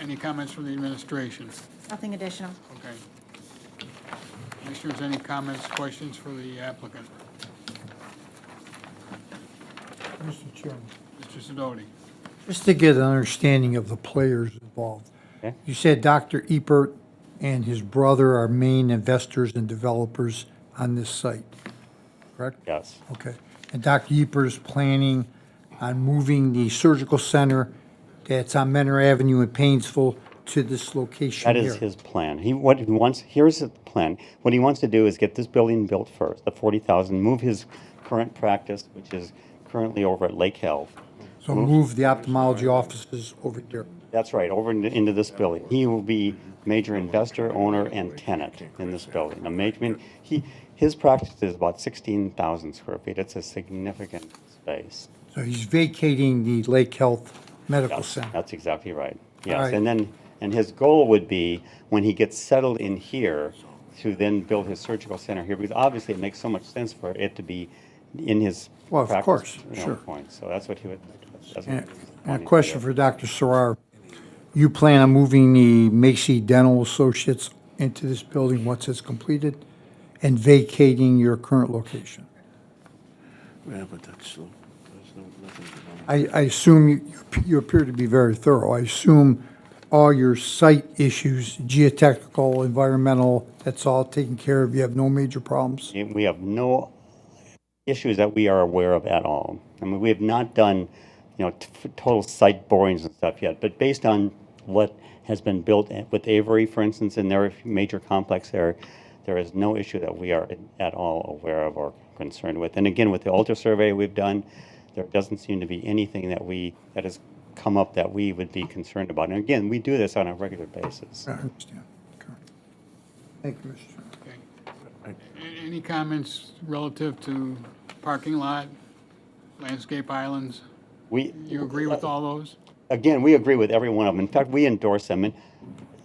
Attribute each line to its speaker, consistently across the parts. Speaker 1: Any comments from the administration?
Speaker 2: Nothing additional.
Speaker 1: Okay. Commissioners, any comments, questions for the applicant?
Speaker 3: Mr. Chairman.
Speaker 1: Mr. Sidoti?
Speaker 3: Just to get an understanding of the players involved.
Speaker 4: Okay.
Speaker 3: You said Dr. Ebert and his brother are main investors and developers on this site, correct?
Speaker 4: Yes,
Speaker 3: Okay. And Dr. Ebert is planning on moving the surgical center that's on Menor Avenue in Painesville to this location
Speaker 4: that
Speaker 3: here.
Speaker 4: is his plan. He, what he wants, here's the plan. What he wants to do is get this building built first, the 40,000, move his current practice, which is currently over at Lake Health.
Speaker 3: So move the ophthalmology offices over there.
Speaker 4: That's right, over into, into this building. He will be major investor, owner, and tenant in this building. A major, I mean, he, his practice is about 16,000 square feet. It's a significant space.
Speaker 3: So he's vacating the Lake Health Medical
Speaker 4: Yes,
Speaker 3: Center.
Speaker 4: that's exactly right.
Speaker 3: right.
Speaker 4: Yes, and then, and his goal would be, when he gets settled in here, to then build his surgical center here, because obviously it makes so much sense for it to be in his.
Speaker 3: Well, of
Speaker 4: practice,
Speaker 3: course,
Speaker 4: you know,
Speaker 3: sure.
Speaker 4: point. So that's what he would. that's what
Speaker 3: And
Speaker 4: he was
Speaker 3: and a
Speaker 4: wanting to
Speaker 3: question
Speaker 4: do.
Speaker 3: for Dr. Sarar. You plan on moving the Macy Dental Associates into this building once it's completed and vacating your current location?
Speaker 5: Yeah, but that's, no- that's no, nothing to know.
Speaker 3: I, I assume you, you appear to be very thorough. I assume all your site issues, geotechnical, environmental, that's all taken care of. You have no major problems?
Speaker 4: Yeah, We have no issues that we are aware of at all. I mean, we have not done, you know, t- f- total site borings and stuff yet, but based on what has been built at- with Avery, for instance, in their major complex there, there is no issue that we are at all aware of or concerned with. And again, with the altar survey we've done, there doesn't seem to be anything that we, that has come up that we would be concerned about. And again, we do this on a regular basis.
Speaker 3: I understand. Okay. Thank you, Mr. Chairman.
Speaker 1: Okay. A- Any comments relative to parking lot, landscape islands?
Speaker 4: We.
Speaker 1: You agree with all those?
Speaker 4: again, we agree with every one of them. In fact, we endorse them. And,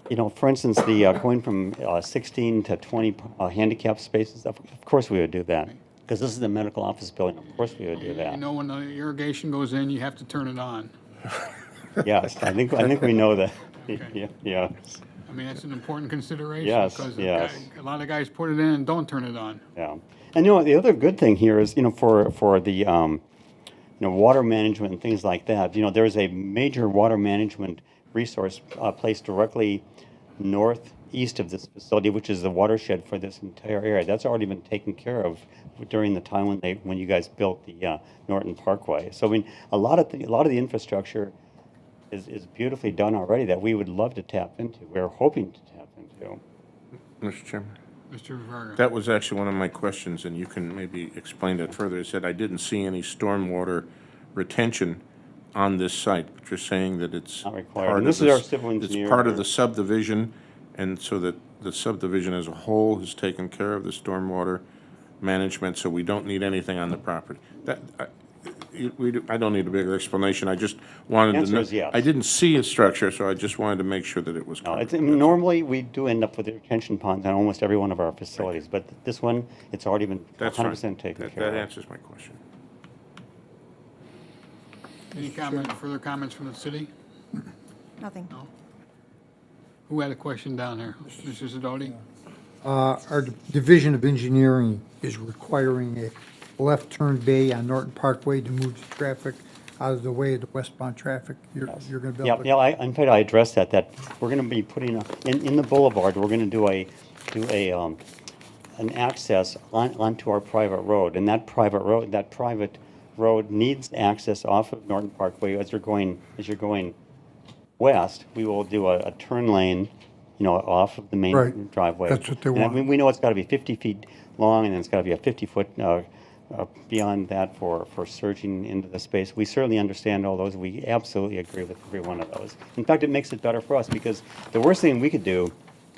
Speaker 4: you know, for instance, the uh, going from uh, 16 to 20 uh, handicap spaces, of, of course we would do that. Because this is the medical office building, of course we would do
Speaker 1: You
Speaker 4: that.
Speaker 1: know, when the irrigation goes in, you have to turn it on.
Speaker 4: Yes, I think, I think we know that.
Speaker 1: Okay.
Speaker 4: Yeah, yeah,
Speaker 1: I mean, that's an important consideration.
Speaker 4: Yes,
Speaker 1: because a
Speaker 4: yes.
Speaker 1: guy- A lot of guys put it in and don't turn it on.
Speaker 4: yeah. And you know, the other good thing here is, you know, for, for the, um, you know, water management and things like that. You know, there's a major water management resource uh, placed directly northeast of this facility, which is the watershed for this entire area. That's already been taken care of during the time when they when you guys built the uh, Norton Parkway. So I mean, a lot of the, a lot of the infrastructure is, is beautifully done already that we would love to tap into. We're hoping to tap into.
Speaker 5: Mr. Chairman,
Speaker 1: Mr. Verga.
Speaker 5: that was actually one of my questions, and you can maybe explain that further. It said, I didn't see any stormwater retention on this site, but you're saying that it's.
Speaker 4: Not required.
Speaker 5: part
Speaker 4: And
Speaker 5: of
Speaker 4: this is our
Speaker 5: s-
Speaker 4: civil engineer.
Speaker 5: It's part of the subdivision, and so that the subdivision as a whole has taken care of the stormwater management, so we don't need anything on the property. That, I, you- we, do- I don't need a bigger explanation, I just wanted to.
Speaker 4: Answer
Speaker 5: know-
Speaker 4: is yes.
Speaker 5: I didn't see a structure, so I just wanted to make sure that it was
Speaker 4: No,
Speaker 5: covered.
Speaker 4: it's, normally, we do end up with retention ponds on almost every one of our facilities, but this one, it's already been
Speaker 5: That's fine.
Speaker 4: 100% taken
Speaker 5: That-
Speaker 4: care of.
Speaker 5: That answers my question.
Speaker 1: Any comment, further comments from the city?
Speaker 2: Nothing.
Speaker 1: Who had a question down there? Mr. Sidoti?
Speaker 3: Uh, Our Division of Engineering is requiring a left turn bay on Norton Parkway to move the traffic out of the way of the westbound traffic. You're, you're going to be
Speaker 4: Yeah,
Speaker 3: able
Speaker 4: yeah,
Speaker 3: to.
Speaker 4: I, in fact, I addressed that, that we're gonna be putting, a- in, in the boulevard, we're gonna do a, do a, um, an access on, onto our private road, and that private road, that private road needs access off of Norton Parkway as you're going, as you're going west, we will do a, a turn lane, you know, off of the main
Speaker 3: Right.
Speaker 4: driveway.
Speaker 3: That's what they
Speaker 4: And I
Speaker 3: want.
Speaker 4: mean, We know it's gotta be fifty feet long, and then it's gotta be a fifty-foot, uh, uh, beyond that for, for surging into the space. We certainly understand all those, we absolutely agree with every one of those. In fact, it makes it better for us, because the worst thing we could do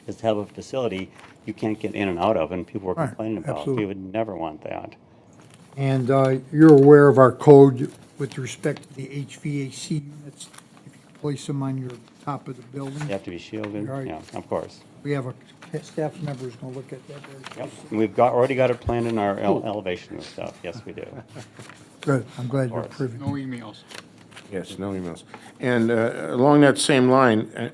Speaker 4: is to have a facility you can't get in and out of, and people were
Speaker 3: Right,
Speaker 4: complaining about.
Speaker 3: absolutely.
Speaker 4: We would never want that.
Speaker 3: And uh, you're aware of our code with respect to the HVAC units. If you Place them on your top of the building.
Speaker 4: They have to be shielded,
Speaker 3: Right.
Speaker 4: yeah, of course.
Speaker 3: We have a staff member who's going to look at that. very
Speaker 4: Yep, and we've got, already got it planned in our ele- elevation and stuff, yes, we do.
Speaker 3: Good, I'm glad you're
Speaker 4: Of course.
Speaker 3: approving.
Speaker 1: No emails.
Speaker 5: Yes, no emails. And uh, along that same line, uh,